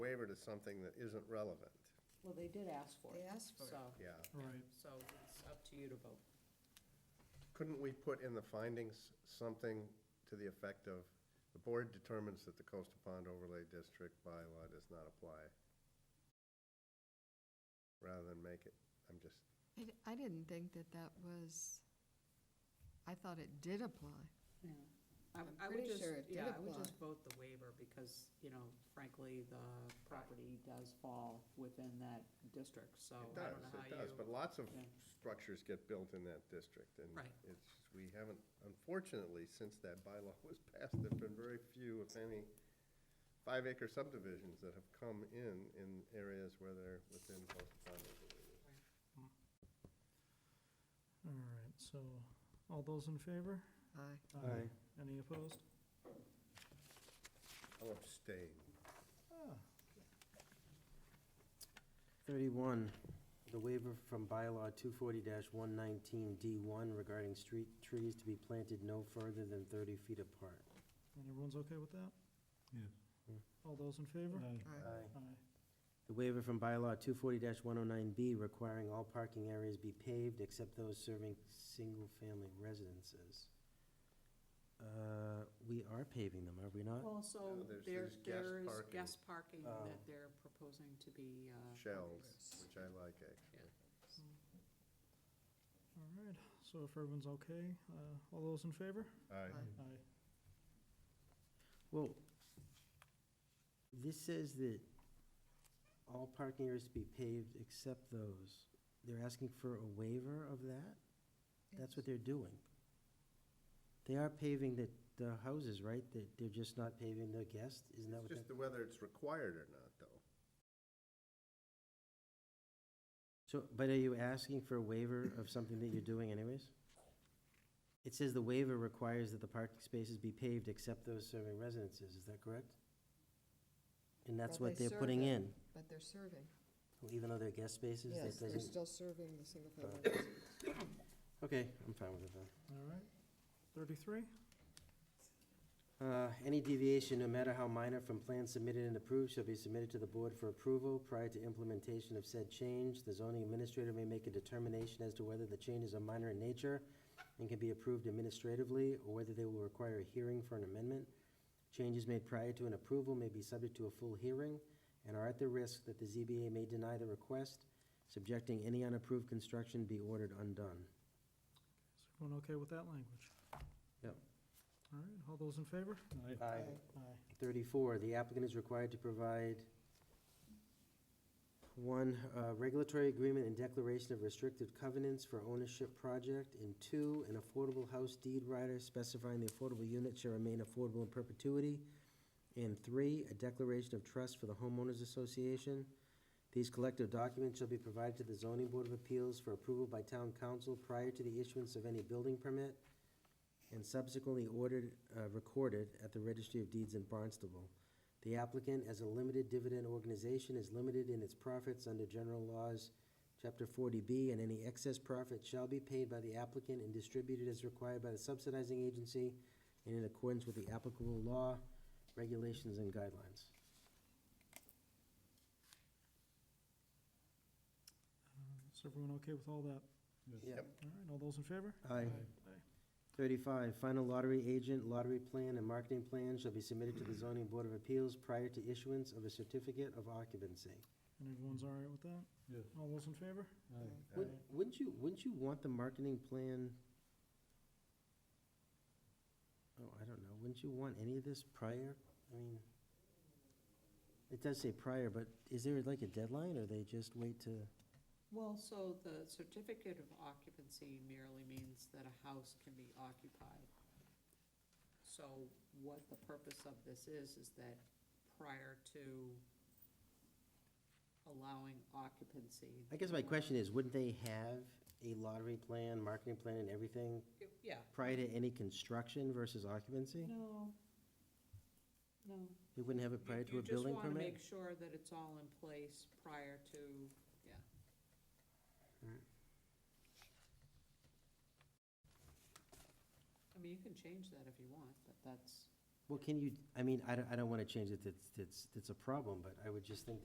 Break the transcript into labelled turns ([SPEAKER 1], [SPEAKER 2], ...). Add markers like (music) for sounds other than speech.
[SPEAKER 1] favor to something that isn't relevant,
[SPEAKER 2] Well, they did ask for
[SPEAKER 3] They
[SPEAKER 2] it,
[SPEAKER 3] asked for it.
[SPEAKER 2] so,
[SPEAKER 1] yeah.
[SPEAKER 4] Right,
[SPEAKER 2] so it's up to you to vote.
[SPEAKER 1] Couldn't we put in the findings something to the effect of, the board determines that the coastal pond overlay district bylaw does not apply? Rather than make it, I'm just,
[SPEAKER 5] I, d- I didn't think that that was, I thought it did apply.
[SPEAKER 2] Yeah.
[SPEAKER 3] I'm
[SPEAKER 2] I would
[SPEAKER 3] pretty
[SPEAKER 2] just-
[SPEAKER 3] sure it did
[SPEAKER 2] Yeah, I would
[SPEAKER 3] apply.
[SPEAKER 2] just vote the waiver because, you know, frankly, the property does fall within that district,
[SPEAKER 1] it
[SPEAKER 2] so Oh, I
[SPEAKER 1] does,
[SPEAKER 2] don't know how
[SPEAKER 1] it
[SPEAKER 2] you.
[SPEAKER 1] does, but lots of
[SPEAKER 2] Yeah.
[SPEAKER 1] structures get built in that district, and
[SPEAKER 2] Right.
[SPEAKER 1] it's, we haven't, unfortunately, since that bylaw (laughs) was passed, there've been very few, if any, five acre subdivisions that have come in, in areas where they're within coastal pond overlay.
[SPEAKER 4] all right, so, all those in favor?
[SPEAKER 5] Aye.
[SPEAKER 4] Aye. Any opposed?
[SPEAKER 1] I'll abstain.
[SPEAKER 4] Ah,
[SPEAKER 6] Thirty-one, the waiver from bylaw two forty one nineteen D one regarding street trees to be planted no further than thirty feet apart.
[SPEAKER 4] And everyone's okay with that?
[SPEAKER 6] Yeah.
[SPEAKER 4] All those in favor?
[SPEAKER 5] Aye.
[SPEAKER 4] Aye.
[SPEAKER 6] The waiver from bylaw two forty one oh nine B requiring all parking areas be paved except those serving single-family residences. Uh, we are paving them, are we not?
[SPEAKER 2] Also,
[SPEAKER 1] No, there's-
[SPEAKER 2] there's,
[SPEAKER 1] there's guest parking.
[SPEAKER 2] there's
[SPEAKER 1] Um,
[SPEAKER 2] guest parking
[SPEAKER 6] Oh.
[SPEAKER 2] that they're proposing to be, uh.
[SPEAKER 1] Shells, which I like, eh? actually.
[SPEAKER 4] All right, so if everyone's okay, uh, all those in favor?
[SPEAKER 1] Aye.
[SPEAKER 5] Aye.
[SPEAKER 4] Aye.
[SPEAKER 6] Well, this says that all parking areas to be paved except those. They're asking for a waiver of that? That's what they're doing. They are paving the, the houses, right? They, they're just not paving the guests? Isn't that
[SPEAKER 1] It's
[SPEAKER 6] what
[SPEAKER 1] just
[SPEAKER 6] that?
[SPEAKER 1] the whether it's required or not, though.
[SPEAKER 6] So, but are you asking for a waiver of something that you're doing anyways? It says the waiver requires that the parking spaces be paved except those serving residences. Is that correct? And that's
[SPEAKER 3] Well,
[SPEAKER 6] what
[SPEAKER 3] they
[SPEAKER 6] they're putting
[SPEAKER 3] survey.
[SPEAKER 6] in.
[SPEAKER 3] But they're serving.
[SPEAKER 6] Well, Even though they're guest spaces,
[SPEAKER 3] Yes,
[SPEAKER 6] that
[SPEAKER 3] they're
[SPEAKER 6] doesn't,
[SPEAKER 3] still serving the single-family residents.
[SPEAKER 6] okay, I'm fine with it then.
[SPEAKER 4] All right, thirty-three?
[SPEAKER 6] Uh, any deviation, no matter how minor, from plans submitted and approved shall be submitted to the board for approval. Prior to implementation of said change, the zoning administrator may make a determination as to whether the changes are minor in nature and can be approved administratively, or whether they will require a hearing for an amendment. Changes made prior to an approval may be subject to a full hearing and are at the risk that the ZBA may deny the request, subjecting any unapproved construction be ordered undone.
[SPEAKER 4] Is everyone okay with that language?
[SPEAKER 6] Yep.
[SPEAKER 4] All right, all those in favor?
[SPEAKER 6] Aye.
[SPEAKER 4] Aye.
[SPEAKER 6] 34, the applicant is required to provide, one, a regulatory agreement and declaration of restrictive covenants for ownership project, and two, an affordable house deed rider specifying the affordable unit shall remain affordable in perpetuity, and three, a declaration of trust for the homeowners association. These collective documents shall be provided to the zoning board of appeals for approval by town council prior to the issuance of any building permit and subsequently ordered, uh, recorded at the Registry of Deeds in Barnstable. The applicant, as a limited dividend organization, is limited in its profits under general laws, Chapter forty B, and any excess profit shall be paid by the applicant and distributed as required by the subsidizing agency and in accordance with the applicable law, regulations, and guidelines.
[SPEAKER 4] Is everyone okay with all that? All
[SPEAKER 6] Yep.
[SPEAKER 4] right, all those in favor?
[SPEAKER 6] Aye. Thirty-five, final lottery agent, lottery plan, and marketing plan shall be submitted to the zoning board of appeals prior to issuance of a certificate of occupancy.
[SPEAKER 4] And everyone's all right with that?
[SPEAKER 6] Yes.
[SPEAKER 4] All those in favor?
[SPEAKER 6] Would- Wouldn't you, wouldn't you want the marketing plan? Oh, I don't know, wouldn't you want any of this prior? I mean, it does say prior, but is there like a deadline, or they just wait to?
[SPEAKER 2] Well, so the certificate of occupancy merely means that a house can be occupied. So what the purpose of this is, is that prior to allowing occupancy.
[SPEAKER 6] I guess my question is, wouldn't they have a lottery plan, marketing plan, and everything
[SPEAKER 2] Yeah,
[SPEAKER 6] prior to any construction versus occupancy?
[SPEAKER 2] no, no.
[SPEAKER 6] They wouldn't have it prior to
[SPEAKER 2] You-
[SPEAKER 6] a building
[SPEAKER 2] You just wanna
[SPEAKER 6] permit?
[SPEAKER 2] make sure that it's all in place prior to, yeah.
[SPEAKER 6] Alright.
[SPEAKER 2] I mean, you can change that if you want, but that's,
[SPEAKER 6] Well, can you, I mean, I don't, I don't want to change it, that's, that's, that's a problem, but I would just think